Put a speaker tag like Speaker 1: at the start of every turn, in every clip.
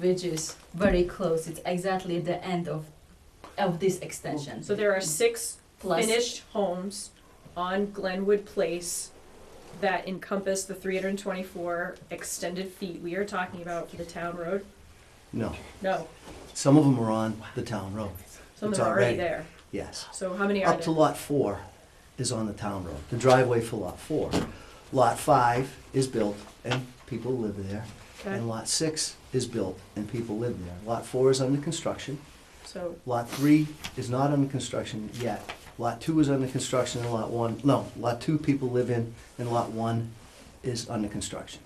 Speaker 1: which is very close. It's exactly the end of of this extension.
Speaker 2: So there are six
Speaker 1: Plus,
Speaker 2: finished homes on Glenwood Place that encompass the three hundred and twenty-four extended feet we are talking about for the town road?
Speaker 3: No,
Speaker 2: No,
Speaker 3: some of them are on the town road,
Speaker 2: some of
Speaker 3: It's
Speaker 2: them are already
Speaker 3: already-
Speaker 2: there.
Speaker 3: yes.
Speaker 2: So how many are
Speaker 3: Up to
Speaker 2: there?
Speaker 3: lot four is on the town road, the driveway for lot four. Lot five is built and people live there.
Speaker 2: Okay.
Speaker 3: And lot six is built and people live there. Lot four is under construction.
Speaker 2: So,
Speaker 3: Lot three is not under construction yet. Lot two is under construction and lot one, no, lot two people live in and lot one is under construction.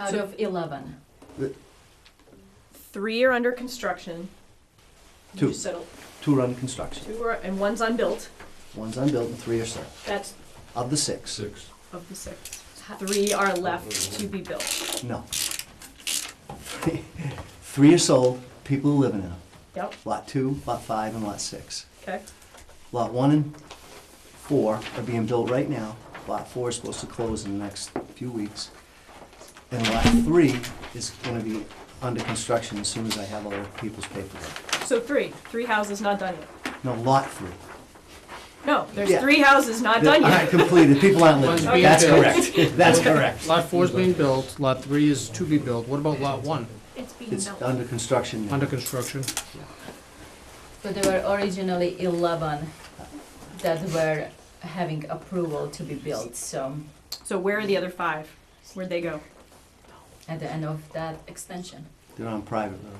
Speaker 1: out
Speaker 2: So-
Speaker 1: of eleven.
Speaker 2: three are under construction. You
Speaker 3: Two.
Speaker 2: just said
Speaker 3: Two are under construction,
Speaker 2: Two are, and one's unbuilt,
Speaker 3: one's unbuilt and three are sold,
Speaker 2: that's
Speaker 3: of the six.
Speaker 4: Six.
Speaker 2: of the six. Three are left to be built.
Speaker 3: No. Three are sold, people are living in them.
Speaker 2: Yep,
Speaker 3: Lot two, lot five, and lot six.
Speaker 2: okay,
Speaker 3: Lot one and four are being built right now. Lot four is supposed to close in the next few weeks. And lot three is gonna be under construction as soon as I have all the people's paperwork.
Speaker 2: so three, three houses not done yet.
Speaker 3: No, lot three.
Speaker 2: No, there's
Speaker 3: Yeah.
Speaker 2: three houses not done
Speaker 3: I
Speaker 2: yet.
Speaker 3: completed, people aren't living.
Speaker 5: One's
Speaker 3: there.
Speaker 2: being
Speaker 3: That's
Speaker 5: built.
Speaker 3: correct, Oh, that's correct.
Speaker 5: Lot four is being built, lot three is to be built, what about lot one,
Speaker 2: It's being
Speaker 3: It's under construction now.
Speaker 5: under construction?
Speaker 1: So there were originally eleven that were having approval to be built. So
Speaker 2: So where are the other five? Where'd they go?
Speaker 1: at the end of that extension.
Speaker 3: They're on private road.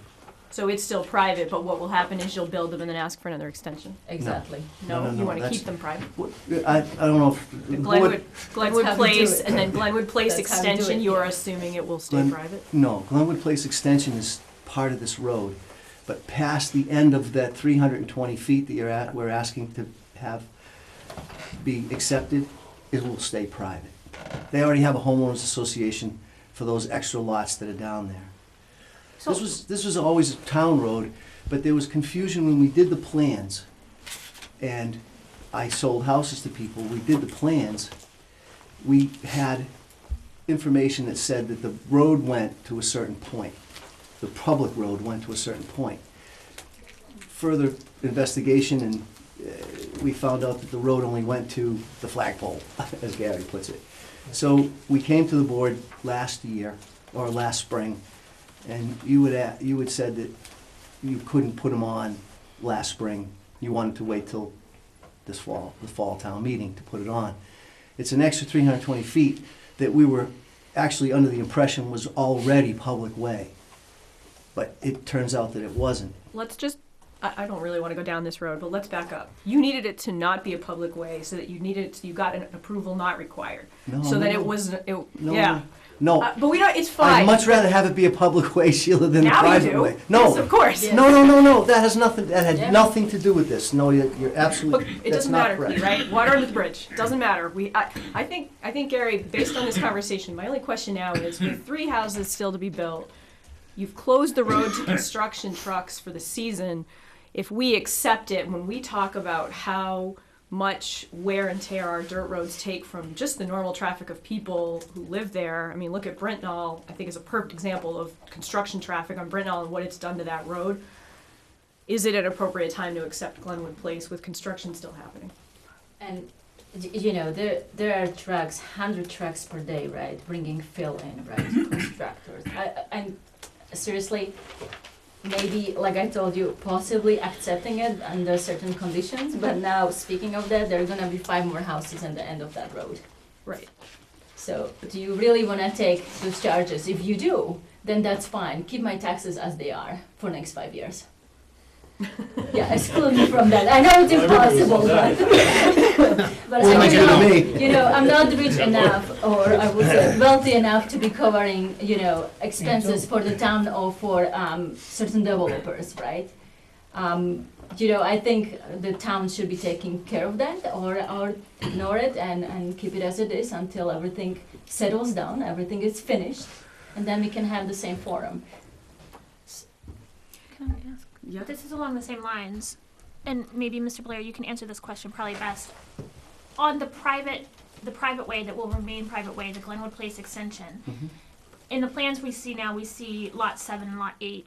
Speaker 2: So it's still private, but what will happen is you'll build them and then ask for another extension.
Speaker 1: Exactly.
Speaker 3: No,
Speaker 2: No,
Speaker 3: no,
Speaker 2: you
Speaker 3: no,
Speaker 2: wanna
Speaker 3: that's-
Speaker 2: keep them private.
Speaker 3: What- I, I don't know if. the board-
Speaker 2: Glenwood, Glenwood
Speaker 1: how we do
Speaker 2: Place,
Speaker 1: it.
Speaker 2: and then Glenwood Place
Speaker 1: That's how we do
Speaker 2: Extension,
Speaker 1: it,
Speaker 2: you're
Speaker 1: yeah.
Speaker 2: assuming it will stay
Speaker 3: Glen-
Speaker 2: private?
Speaker 3: No, Glenwood Place Extension is part of this road, but past the end of that three hundred and twenty feet that you're at, we're asking to have be accepted, it will stay private. They already have a homeowners association for those extra lots that are down there. This was, this was always a town road, but there was confusion when we did the plans. And I sold houses to people, we did the plans. We had information that said that the road went to a certain point. The public road went to a certain point. Further investigation and uh, we found out that the road only went to the flagpole, as Gary puts it. So we came to the board last year, or last spring, and you would, a- you had said that you couldn't put them on last spring. You wanted to wait till this fall, the fall town meeting to put it on. It's an extra three hundred twenty feet that we were actually under the impression was already public way. But it turns out that it wasn't.
Speaker 2: Let's just, I, I don't really wanna go down this road, but let's back up. You needed it to not be a public way, so that you needed, you got an approval not required.
Speaker 3: No,
Speaker 2: So that it
Speaker 3: no, no.
Speaker 2: was, it,
Speaker 3: No,
Speaker 2: yeah.
Speaker 3: No,
Speaker 2: Uh, But we don't, it's
Speaker 3: I'd
Speaker 2: fine.
Speaker 3: much rather have it be a public way, Sheila, than a
Speaker 2: Now you
Speaker 3: private
Speaker 2: do.
Speaker 3: way.
Speaker 2: Yes, of
Speaker 3: No,
Speaker 2: course.
Speaker 1: Yeah.
Speaker 3: no, no, no, no, that has nothing, that
Speaker 1: Yeah.
Speaker 3: had nothing to do with this. No, you're you're
Speaker 2: Look,
Speaker 3: absolutely,
Speaker 2: it
Speaker 3: that's
Speaker 2: doesn't
Speaker 3: not
Speaker 2: matter,
Speaker 3: correct.
Speaker 2: right? Water under the bridge, doesn't matter. We, I, I think, I think Gary, based on this conversation, my only question now is, with three houses still to be built, you've closed the road to construction trucks for the season. If we accept it, when we talk about how much wear and tear our dirt roads take from just the normal traffic of people who live there, I mean, look at Brentnall, I think is a perfect example of construction traffic on Brentnall and what it's done to that road. Is it an appropriate time to accept Glenwood Place with construction still happening?
Speaker 1: And y- you know there there are trucks, hundred trucks per day, right, bringing fill in, right, constructors. I, I- and seriously, maybe like I told you, possibly accepting it under certain conditions. But now speaking of that, there are gonna be five more houses at the end of that road.
Speaker 2: Right.
Speaker 1: So do you really wanna take those charges? If you do, then that's fine. Keep my taxes as they are for next five years. yeah, exclude me from that. I know it's impossible, but but
Speaker 3: Well,
Speaker 1: I
Speaker 3: not
Speaker 1: do know
Speaker 3: you to me.
Speaker 1: you know, I'm not rich enough, or I would say wealthy enough to be covering, you know, expenses for the town or for um, certain developers, right? Um, you know, I think the town should be taking care of that, or or ignore it and and keep it as it is until everything settles down, everything is finished, and then we can have the same forum.
Speaker 6: Can I ask?
Speaker 2: Yeah.
Speaker 6: This is along the same lines, and maybe Mr. Blair, you can answer this question probably best. On the private, the private way that will remain private way, the Glenwood Place extension. In the plans we see now, we see lot seven and lot eight